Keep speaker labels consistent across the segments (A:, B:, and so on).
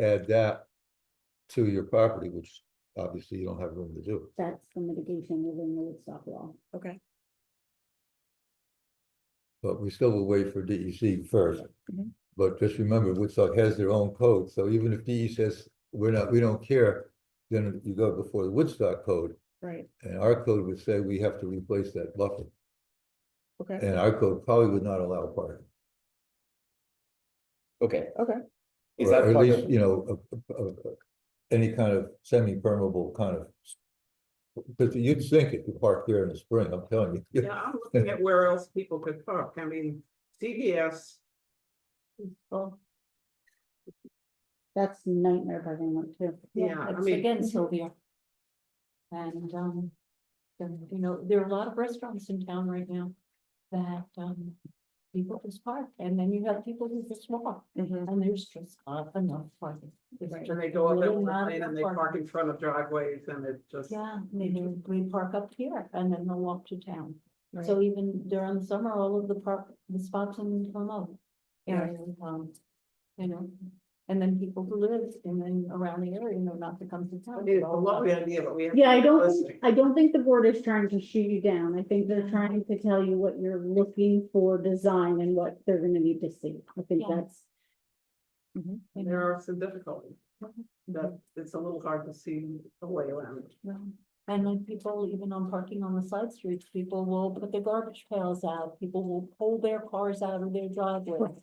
A: add that to your property, which obviously you don't have room to do.
B: That's the mitigation within the Woodstock law.
C: Okay,
A: But we still will wait for DEC first.
C: Mhm.
A: But just remember, Woodstock has their own code, so even if DE says, we're not, we don't care, then you go before the Woodstock code.
C: right,
A: And our code would say we have to replace that buffer,
C: okay,
A: and our code probably would not allow parking.
D: Okay,
C: okay,
D: is
A: or
D: that
A: At
D: part
A: least,
D: of,
A: you know, a- a- a- any kind of semi-permeable kind of. Because you'd sink if you parked there in the spring, I'm telling you.
E: Yeah, I'm looking at where else people could park. I mean, CVS. Well,
B: That's nightmare parking lot too.
E: Yeah, I
F: it's
E: mean- mhm.
F: again Sylvia. And, um, then, you know, there are a lot of restaurants in town right now that, um, people just park and then you have people who just walk
C: mhm,
E: Mm-hmm.
F: and there's just not enough parking. There's
C: Right.
E: and they go up
F: really
E: Evelyn
F: not
E: Lane and they
F: enough
E: park in front of driveways and it just.
F: Yeah, maybe we park up here and then they'll walk to town.
C: so,
F: So even during the summer, all of the park, the spots in Tomo.
C: Yeah.
F: Area, um, you know, and then people who live in and around the area know not to come to
E: I
F: town.
E: mean, it's a lovely idea, but we have. to
B: Yeah, I
E: be
B: don't,
E: realistic.
B: think- I don't think the board is trying to shoot you down. I think they're trying to tell you what you're looking for design and what they're gonna need to see. I think
F: Yeah.
B: that's,
C: mhm,
F: you know.
E: There are some difficulties,
F: Mhm.
E: that it's a little hard to see the way around. it.
F: Yeah. And when people, even on parking on the side streets, people will put their garbage pails out, people will pull their cars out of their driveway.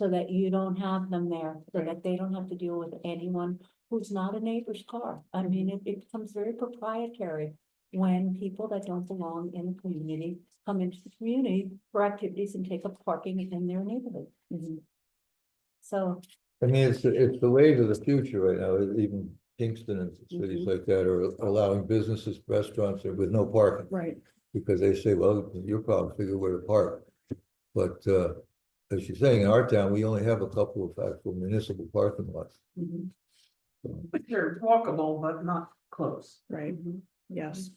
F: So that you don't have them there, so that they don't have to deal with anyone who's not a neighbor's car. I mean, it, it becomes very proprietary. When people that don't belong in the community come into the community for activities and take up parking in their neighborhood. So,
A: I mean, it's, it's the wave of the future right now, even Kingston and cities like that are allowing businesses, restaurants with no parking.
C: right,
A: Because they say, well, you're probably figure where to park. But, uh, as you're saying, in our town, we only have a couple of actual municipal parking lots.
E: But they're walkable, but not close.
C: right, yes.
B: do you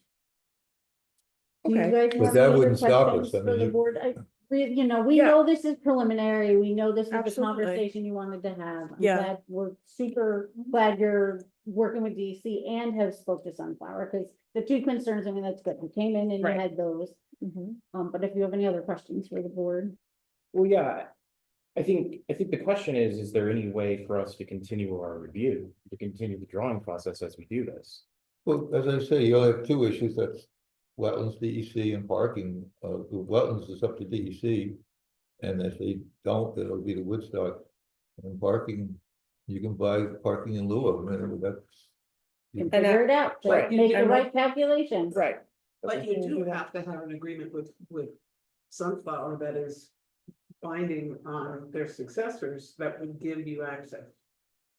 C: Okay.
B: guys
A: But
B: have
A: that
B: any other
A: wouldn't stop us.
B: questions
A: I
B: for
A: mean,
B: the
A: you-
B: board? I, we, you know, we
C: Yeah.
B: know this is preliminary. We know this is the
C: Absolutely.
B: conversation you wanted to have. I'm
C: Yeah.
B: glad We're super glad you're working with DC and have spoke to Sunflower, because the two concerns, I mean, that's good. You came in and you
C: Right.
B: had those.
C: mhm.
B: Um, but if you have any other questions for the board,
D: well, yeah. I think, I think the question is, is there any way for us to continue our review, to continue the drawing process as we do this?
A: Well, as I say, you only have two issues, that's wetlands, DEC and parking, uh, the wetlands is up to DEC. And if they don't, then it'll be the Woodstock. And parking, you can buy parking in lieu of, them, and that's.
B: you can
C: And
B: figure it out,
E: Right.
B: but make the
C: And what-
B: right calculations.
C: Right,
E: But you do have to have an agreement with, with Sunflower that is binding on their successors that would give you access.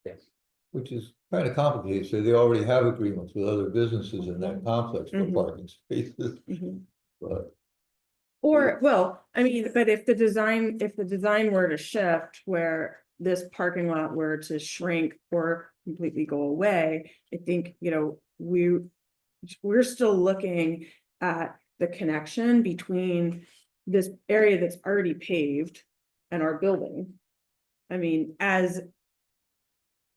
D: Yes.
A: Which is kind of complicated, so they already have agreements with other businesses in that complex for
C: Mhm.
A: parking spaces,
C: mhm.
A: but.
C: Or, well, I mean, but if the design, if the design were to shift where this parking lot were to shrink or completely go away, I think, you know, we, we're still looking at the connection between this area that's already paved and our building. I mean, as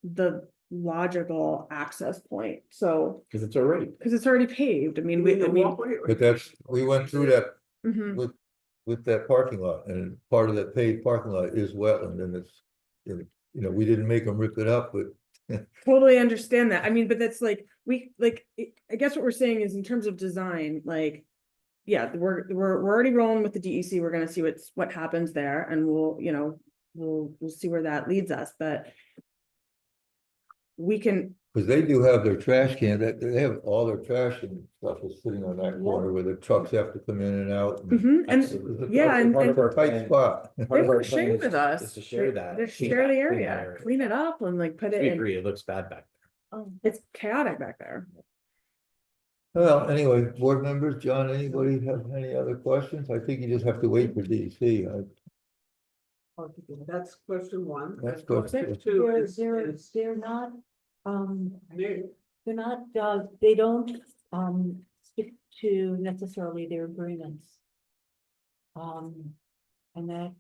C: the logical access point, so,
D: Cause it's already,
C: because it's already paved, I mean, we, I
E: Either
C: mean.
E: walkway or-
A: But that's, we went through that
C: mhm,
A: with, with that parking lot, and part of that paved parking lot is wetland, and it's. You know, we didn't make them rip it up, but
C: Totally understand that, I mean, but that's like, we, like, I- I guess what we're saying is in terms of design, like. Yeah, we're, we're, we're already rolling with the DEC, we're gonna see what's, what happens there, and we'll, you know, we'll, we'll see where that leads us, but. We can,
A: Because they do have their trash can, that, they have all their trash and stuff is sitting on that
F: Yeah.
A: corner where the trucks have to come in and out. and
C: mhm, and
D: absolutely.
C: yeah,
A: it's a
C: and-
A: tight-
C: and-
A: it's a Tight spot.
C: They
D: Part of our
C: were
D: plan
C: sharing
D: is-
C: with us.
D: Is to share that.
C: Just
D: clean that-
C: share the
D: clean that
C: area, clean it up and like put it
D: We
C: in,
D: agree, it looks bad back
F: um,
C: it's chaotic back there.
A: Well, anyway, board members, John, anybody have any other questions? I think you just have to wait for DC. I-
E: That's question one.
A: That's
E: And
A: question
E: Two
F: They're,
E: is,
F: they're,
E: is
F: they're not, um,
E: new.
F: they're not, uh, they don't, um, stick to necessarily their agreements. Um, and that,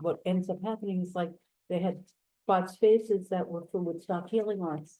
F: what ends up happening is like, they had bought spaces that were for Woodstock Healing Arts.